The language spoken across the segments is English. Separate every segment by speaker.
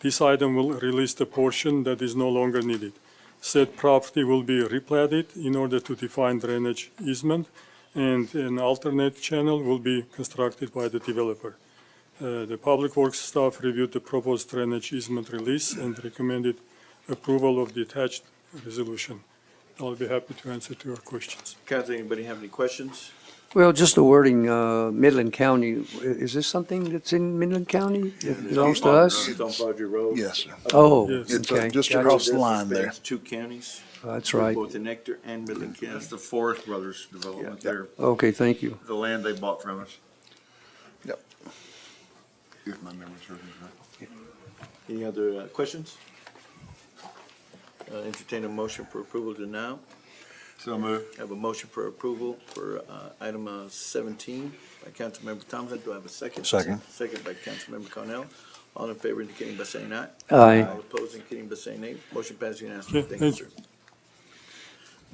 Speaker 1: This item will release the portion that is no longer needed. Said property will be replatted in order to define drainage easement, and an alternate channel will be constructed by the developer. Uh, The Public Works staff reviewed the proposed drainage easement release and recommended approval of the attached resolution. I'll be happy to answer to your questions.
Speaker 2: Council, anybody have any questions?
Speaker 3: Well, just the wording, uh, Midland County, i- is this something that's in Midland County? It belongs to us?
Speaker 2: It's on Fodger Road.
Speaker 4: Yes, sir.
Speaker 3: Oh,
Speaker 1: Yes.
Speaker 4: It's uh,
Speaker 3: okay.
Speaker 4: just
Speaker 3: Gotcha.
Speaker 4: across the line there.
Speaker 2: Spans Two counties,
Speaker 3: That's right.
Speaker 2: both in Ector and Midland County.
Speaker 5: That's the Forest Brothers development
Speaker 2: Yeah.
Speaker 5: there,
Speaker 3: Okay, thank you.
Speaker 5: the land they bought from us.
Speaker 4: Yep.
Speaker 5: If my memory serves me right.
Speaker 2: Any other uh, questions? Uh, Entertain a motion for approval to now.
Speaker 5: So move.
Speaker 2: I Have a motion for approval for uh, item uh, 17 by Councilmember Thompson. Do I have a second?
Speaker 4: Second.
Speaker 2: Second by Councilmember Cornell. All in favor indicating by saying aye.
Speaker 3: Aye.
Speaker 2: All opposed indicating by saying nay. Motion passed unanimously.
Speaker 1: Okay,
Speaker 2: Thank you,
Speaker 1: thank
Speaker 2: sir.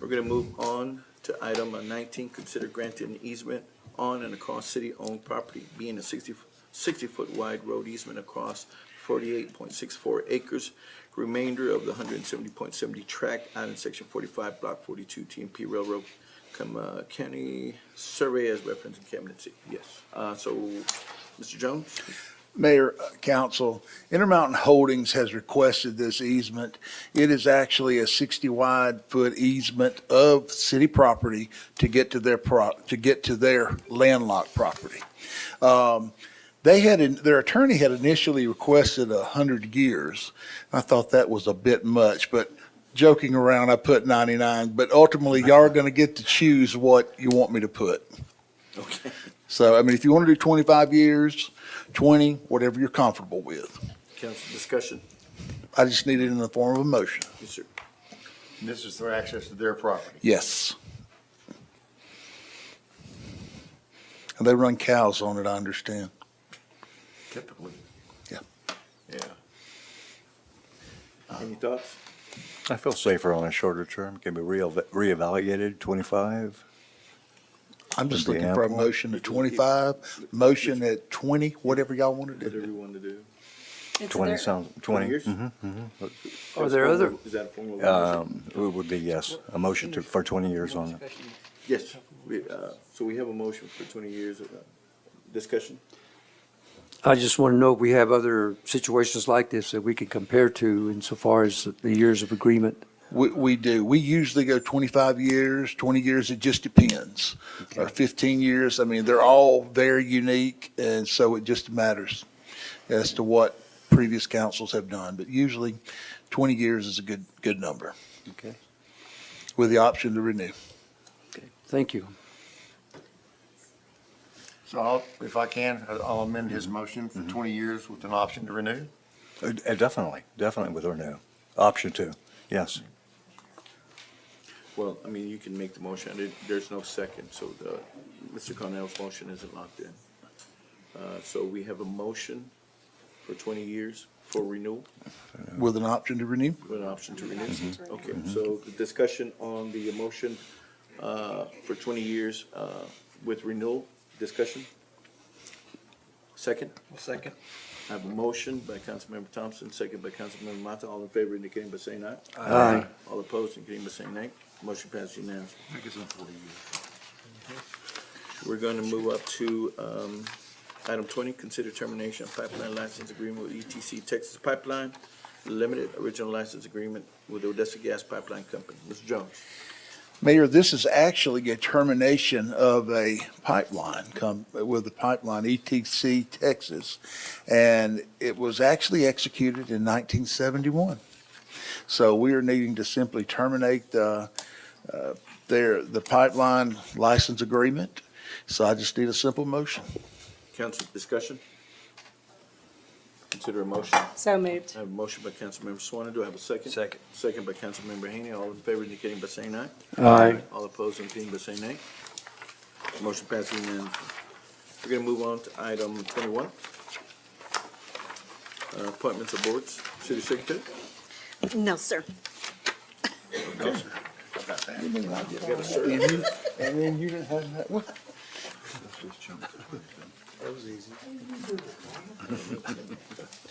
Speaker 2: We're going to move on to item uh, 19, consider granting an easement on and across city-owned property, being a 60 60-foot wide road easement across 48.64 acres, remainder of the 170.70 tract out in section 45, block 42, TMP Railroad, come uh, county survey as referenced in cabinet C. Yes. Uh, So, Mr. Jones?
Speaker 4: Mayor, uh, council, Intermountain Holdings has requested this easement. It is actually a 60 wide foot easement of city property to get to their pro, to get to their landlocked property. Um, They had, in- their attorney had initially requested 100 years. I thought that was a bit much, but joking around, I put 99. But ultimately, y'all are going to get to choose what you want me to put.
Speaker 2: Okay.
Speaker 4: So, I mean, if you want to do 25 years, 20, whatever you're comfortable with.
Speaker 2: Council discussion.
Speaker 4: I just need it in the form of a motion.
Speaker 2: Yes, sir.
Speaker 5: And This is their access to their property.
Speaker 4: Yes. And they run cows on it, I understand.
Speaker 5: Typically.
Speaker 2: Yeah. Uh, Any thoughts?
Speaker 6: I feel safer on a shorter term, can be reeval- reevaluated, 25.
Speaker 4: I'm just
Speaker 6: Would be
Speaker 4: looking for a
Speaker 6: ample.
Speaker 4: motion at 25, motion at 20, whatever y'all want to
Speaker 2: Whatever
Speaker 4: do.
Speaker 2: you want to do.
Speaker 7: It's
Speaker 6: 20
Speaker 7: their-
Speaker 6: sounds,
Speaker 2: 20
Speaker 6: 20.
Speaker 2: years?
Speaker 6: mhm.
Speaker 2: mm-hmm.
Speaker 3: Are there other-
Speaker 2: Is that a formal motion?
Speaker 6: Um, It would be, yes, a motion to, for 20 years on it.
Speaker 2: Yes, we, uh, so we have a motion for twenty years of uh, discussion.
Speaker 3: I just want to know if we have other situations like this that we can compare to insofar as the years of agreement.
Speaker 4: We, we do. We usually go 25 years, 20 years, it just depends. Or 15 years, I mean, they're all very unique, and so it just matters as to what previous councils have done. But usually, 20 years is a good, good number.
Speaker 3: Okay.
Speaker 4: With the option to renew.
Speaker 3: Thank you.
Speaker 5: So I'll, if I can, I'll amend his motion for 20 years with an option to renew.
Speaker 6: Uh, uh, Definitely, definitely with renew. Option two, yes.
Speaker 2: Well, I mean, you can make the motion. There- There's no second, so the, Mr. Cornell's motion isn't locked in. Uh, so we have a motion for twenty years for renewal,
Speaker 4: With an option to renew?
Speaker 2: with an option to renew. Okay, so the discussion on the motion, uh, for twenty years, uh, with renewal, discussion? Second? Second. I have a motion by Councilmember Thompson, second by Councilmember Mata. All in favor indicating by saying aye.
Speaker 3: Aye.
Speaker 2: All opposed indicating by saying nay. Motion passed unanimously.
Speaker 5: I think it's in 40 years.
Speaker 2: We're going to move up to um, item 20, consider termination of pipeline license agreement with ETC Texas Pipeline Limited, original license agreement with Odessa Gas Pipeline Company. Mr. Jones?
Speaker 4: Mayor, this is actually a termination of a pipeline come with the pipeline ETC Texas. And it was actually executed in nineteen seventy-one. So we are needing to simply terminate the, uh, their, the pipeline license agreement. So I just need a simple motion.
Speaker 2: Council discussion? Consider a motion.
Speaker 7: So moved.
Speaker 2: I have a motion by Councilmember Swann. Do I have a second?
Speaker 6: Second.
Speaker 2: Second by Councilmember Haney. All in favor indicating by saying aye.
Speaker 3: Aye.
Speaker 2: All opposed indicating by saying nay. Motion passes unanimously. We're going to move on to item 21. Uh, Appointments of boards. City Secretary?
Speaker 7: No, sir.
Speaker 4: And then you didn't have that, what?
Speaker 5: Let's just jump to it then.